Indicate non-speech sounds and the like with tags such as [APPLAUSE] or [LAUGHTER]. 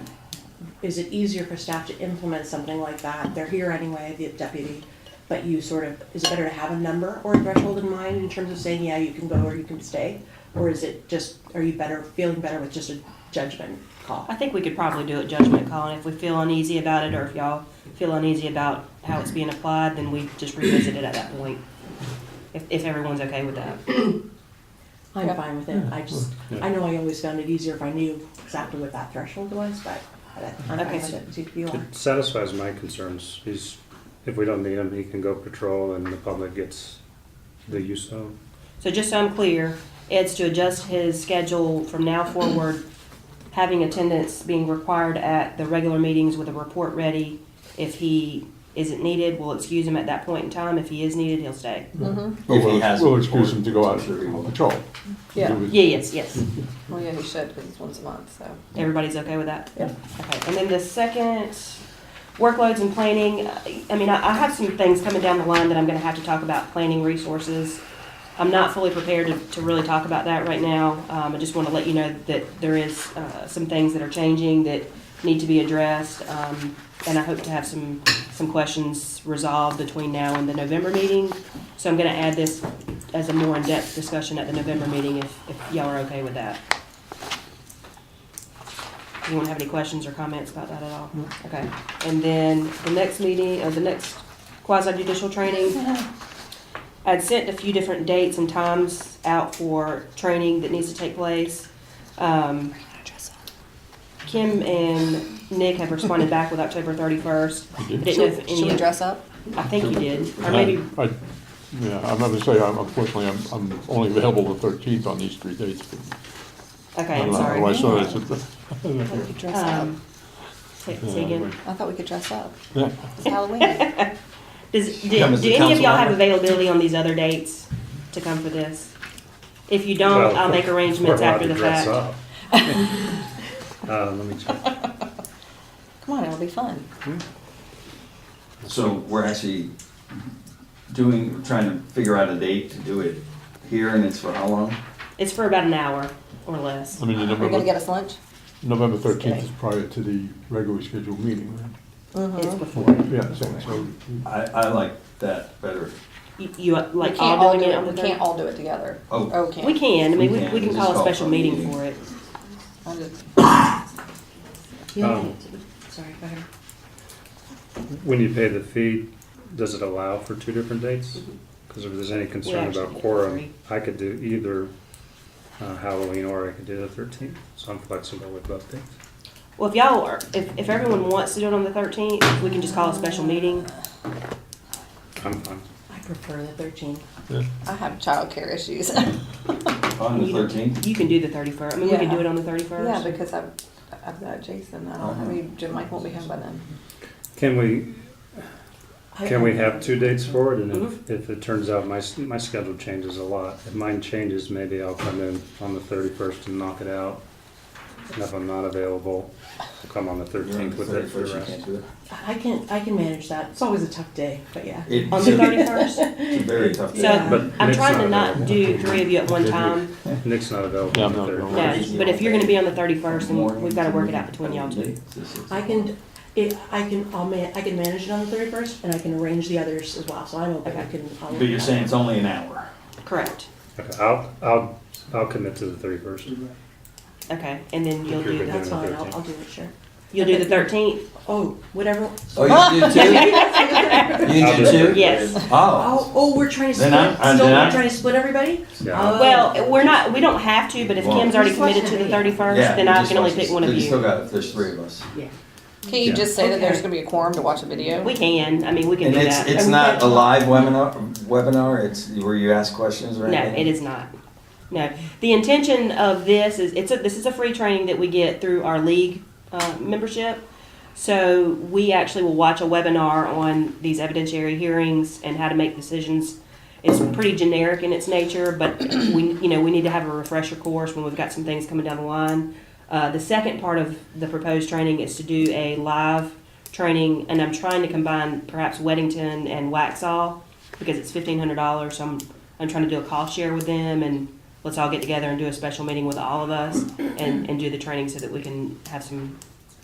is it easier for staff to implement something like that? They're here anyway, the deputy, but you sort of, is it better to have a number or a threshold in mind in terms of saying, yeah, you can go or you can stay? Or is it just, are you better, feeling better with just a judgment call? I think we could probably do a judgment call, and if we feel uneasy about it, or if y'all feel uneasy about how it's being applied, then we just revisit it at that point. If, if everyone's okay with that. I'm fine with it, I just, I know I always found it easier if I knew exactly what that threshold was, but I'm fine Okay. with it, See if you are. It satisfies my concerns. He's, if we don't need him, he can go patrol and the public gets the use of. him. So just so I'm clear, Ed's to adjust his schedule from now forward, having attendance being required at the regular meetings with a report ready. If he isn't needed, we'll excuse him at that point in time. If he is needed, he'll stay. Mm-hmm. But If he we'll, has we'll a excuse him to go out report. on patrol. Yeah, Yeah, yes, yes. well, yeah, he should, because it's once a month, so. Everybody's okay with that? Yeah. Okay, and then the second, workloads and planning, I mean, I I have some things coming down the line that I'm gonna have to talk about, planning resources. I'm not fully prepared to, to really talk about that right now. Um, I just wanna let you know that there is, uh, some things that are changing that need to be addressed. Um, and I hope to have some, some questions resolved between now and the November meeting. So I'm gonna add this as a more in-depth discussion at the November meeting if, if y'all are okay with that. Anyone have any questions or comments about that at all? Okay, and then the next meeting, or the next quasi judicial training, I'd sent a few different dates and times out for training that needs to take place. Um, Kim and Nick have responded back with October thirty-first. I You did? didn't know if Should we any, dress up? I think you did, or maybe, I, I- yeah, I'm going to say, I'm- unfortunately, I'm, I'm only available the thirteenth on these three dates. but Uh-huh. okay, I I'm don't know how I sorry. saw this at the- We could dress up. Um, say say again. I thought we could dress up. [LAUGHS] Yeah. [LAUGHS] It's Halloween. Does, do, Come as do a any of y'all have council member. availability on these other dates to come for this? If you don't, Well, I'll make we're arrangements allowed after to the dress fact. up. [LAUGHS] Uh, let me check. Come on, it'll be fun. So we're actually doing, trying to figure out a date to do it here and it's for how long? It's for about an hour or less. I mean, the Are you gonna November, get us lunch? November thirteenth is prior to the regularly scheduled meeting, right? It's before. Yeah, so, so I, I like that better. You, you uh, We like can't all doing it on We the can't third? all do it together. Oh. Oh, we can't. We can, I mean, We we, we can. can Just call a call for a special meeting meeting. for it. I'll just- Yeah, Um, sorry, go ahead. When you pay the fee, does it allow for two different dates? Because if there's any concern Mm-hmm. actually about do quorum, three. I could do either uh, Halloween or I could do the thirteenth. So I'm flexible with both dates. Well, if y'all are, if, if everyone wants to do it on the thirteenth, we can just call a special meeting. I'm fine. I prefer the thirteen. I have childcare issues. On the You- thirteenth? You can do the thirty-first, I mean, we can Yeah. do it on the [LAUGHS] Yeah, thirty-first. because I've, I've got Jason, I don't, I mean, Jim Mike won't be home by then. Can we, I- can we have two dates for it? And if, if it turns out my, s- my schedule changes a lot, if mine changes, maybe I'll come in on the thirty-first and knock it out. And if I'm not available, I'll come on the thirteenth with it for the rest. I can, I can manage that, it's always a tough day, but yeah. It- On the [LAUGHS] thirty-first, It's a very tough so Yeah. day. But I'm Nick's trying not to not available. do three of you at one time. Nick's not available Yeah, on I'm the not available. thirty-first. No, but if you're gonna be on the thirty-first, then we've gotta work it out between y'all two. I can, it, I can, I'll ma, I can manage it on the thirty-first, and I can arrange the others as well, so I'm open, I Okay. can. I'll But you're saying it's only an hour? Correct. Okay, I'll, I'll, I'll commit to the thirty-first. Okay, and then you'll do, the- That's fine, I'll, I'll do it, sure. you'll do the thirteenth? Oh, whatever, Oh, you do two? You do two? Yes. Oh, [LAUGHS] oh, oh, we're trying to Then split, I'm- I'm- still, then we're I'm- trying to split everybody? Yeah. Oh. Well, we're not, we don't have to, but if Well- Kim's already committed to the thirty-first, yeah. then you I just can only watch pick this. one of You still you. got, there's three of us. Can't you Yeah. just say that there's Okay. gonna be a quorum to watch a video? We can, I mean, we can And do it's, that. it's And we not got- a live webinar, webinar, it's where you ask questions or No, it anything? is not. No, the intention of this is, it's a, this is a free training that we get through our league, uh, membership. So we actually will watch a webinar on these evidentiary hearings and how to make decisions. It's pretty generic in its nature, but we, you know, we need to have a refresher course when we've got some things coming down the line. Uh, the second part of the proposed training is to do a live training, and I'm trying to combine perhaps Weddington and Waxall because it's fifteen hundred dollars. So I'm I'm trying to do a cost share with them, and let's all get together and do a special meeting with all of us and and do the training so that we can have some